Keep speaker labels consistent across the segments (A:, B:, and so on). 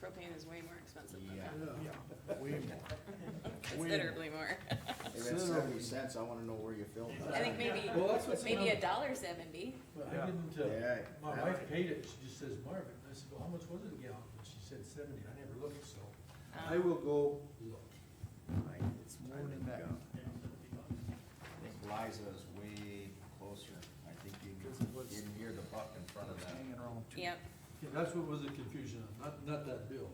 A: propane is way more expensive than
B: Yeah.
A: that,
C: Yeah, way more. way
A: considerably more.
B: If it's seventy cents, I wanna know where you filled
A: I
B: that.
A: think maybe,
D: Well, that's what's
A: maybe a
D: another-
A: dollar seventy.
D: But
C: Yeah.
D: I didn't, uh,
B: Yeah.
D: my
B: that-
D: wife paid it, she just says, Marvin, I said, well, how much was it a gallon? And she said seventy, I never looked, so
A: Um,
D: I will go look.
B: I
C: It's more than that.
B: think Liza is way closer. I think you
C: Because
B: can,
C: it was-
B: you can hear the buck in front of that.
C: Hanging around two.
A: Yep,
D: Yeah, that's what was the confusion, on, not, not that bill.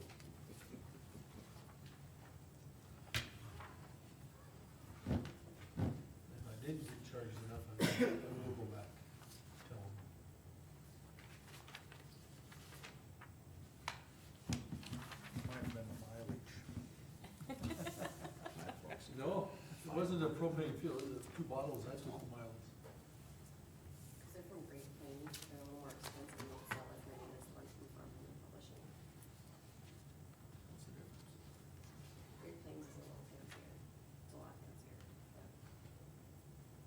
D: If I didn't get charged enough, I will I will go back, tell them.
C: Might have been the mileage.
B: My folks.
D: No, it wasn't a propane fuel, it was two bottles, that's all miles.
E: Cause they're from Great Plains, they're a little more expensive, and they'll sell as many as one from Farmland and Publishing.
B: That's a good-
E: Great Plains is a little fancier, it's a lot fancier, but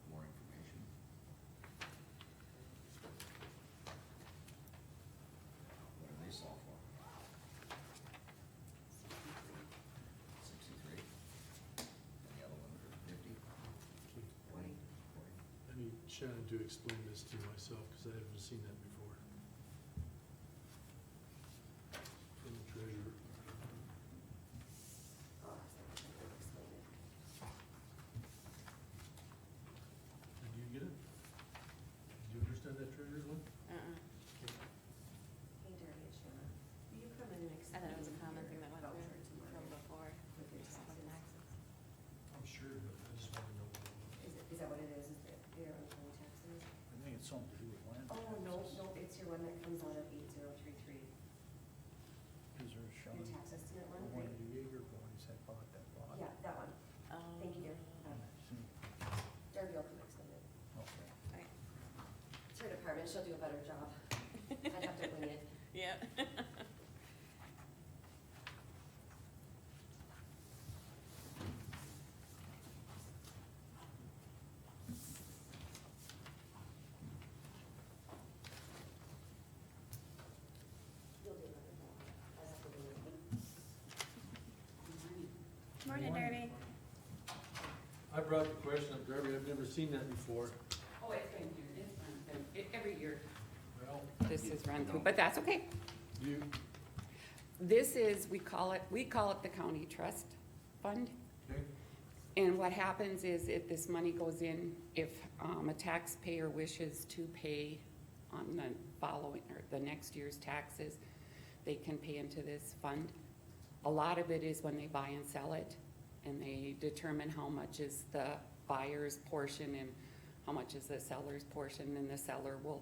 B: More information. What do they sell for? Sixty-three?
E: sixty-three.
B: And the other one for fifty?
E: Oh,
B: Forty? Forty?
F: I need Shannon to explain this to myself, because I haven't seen that before. From the treasurer.
E: I'll ask them if they can explain it.
D: Did you get it? Did you understand that treasurer's one?
A: uh-uh.
E: Hey Darby and Shannon, will you come in and
A: I
E: explain?
A: thought it was a common thing that went
E: your
A: through
E: voucher
A: from
E: tomorrow
A: before.
E: With your
A: Just
E: taxes,
A: wasn't access.
D: I'm sure, but I just want to know. what it was.
E: is it, is that what it is, is it your own taxes?
C: I think it's something to do with land.
E: Oh, no,
C: taxes.
E: no, it's your one that comes out of eight zero three three,
C: Is there a Sean,
E: your tax estimate
C: the
E: one,
C: one
E: right?
C: of the Jaeger boys that bought that lot?
E: Yeah, that one,
A: Oh.
E: thank you, dear. Uh,
C: Hmm,
E: Darby will come explain it.
C: Okay.
A: Right.
E: It's her department, she'll do a better job. I'd have to wing it.
A: Yeah.
E: You'll do a better job. I'd have to wing it.
A: Morning, Darby.
D: I brought the question up, Darby, I've never seen that before.
G: Oh, it's been here, it's been,
E: e,
G: been, it- every year.
D: Well,
G: This is run through, but that's okay.
D: you,
G: This is, we call it, we call it the county trust fund.
D: okay,
G: And what happens is if this money goes in, if, um, a taxpayer wishes to pay on the following, or the next year's taxes, they can pay into this fund. A lot of it is when they buy and sell it, and they determine how much is the buyer's portion and how much is the seller's portion, and the seller will,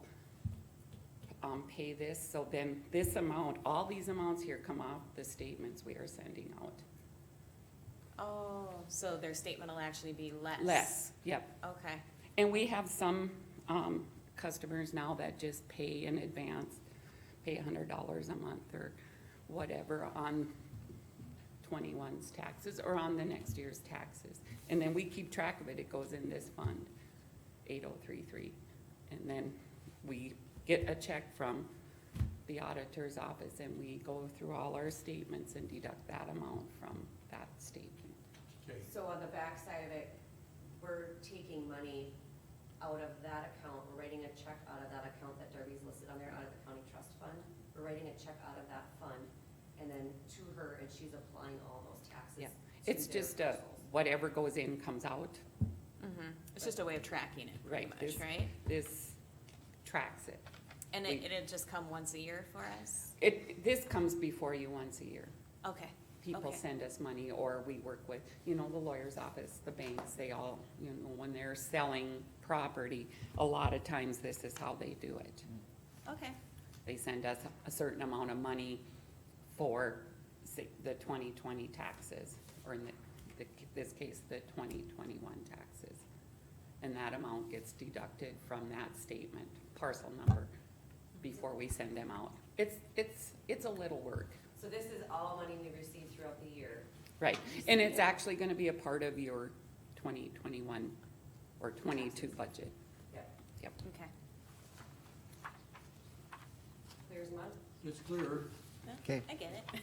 G: um, pay this. So then this amount, all these amounts here come off the statements we are sending out.
A: Oh, so their statement will actually be less?
G: Less, yep.
A: Okay,
G: And we have some, um, customers now that just pay in advance, pay hundred dollars a month or whatever on 21's taxes or on the next year's taxes. And then we keep track of it, it goes in this fund, eight oh three three. And then we get a check from the auditor's office and we go through all our statements and deduct that amount from that statement.
D: okay.
E: So on the backside of it, we're taking money out of that account, we're writing a check out of that account that Darby's listed on there, out of the county trust fund. We're writing a check out of that fund, and then to her, and she's applying all those taxes.
G: Yeah.
E: to
G: It's
E: their
G: just a,
E: parcels.
G: whatever goes in comes out.
A: mhm. It's just a way of tracking it pretty
G: Right,
A: much,
G: this-
A: right?
G: this tracks it.
A: And
G: we-
A: it, it'd just come once a year for us?
G: It, this comes before you once a year.
A: Okay,
G: People
A: Okay.
G: send us money or we work with, you know, the lawyer's office, the banks, they all, you know, when they're selling property, a lot of times this is how they do it.
A: okay,
G: They send us a certain amount of money for say, the twenty twenty taxes, or in the, the, this case, the twenty twenty-one taxes. And that amount gets deducted from that statement, parcel number, before we send them out. It's, it's, it's a little work,
E: So this is all money we receive throughout the year.
G: right? And it's actually gonna be a part of your twenty twenty-one or twenty-two budget.
E: Yep,
G: Yep,
A: okay.
E: clears month.
D: It's clear.
A: No,
B: Okay.
A: I get it.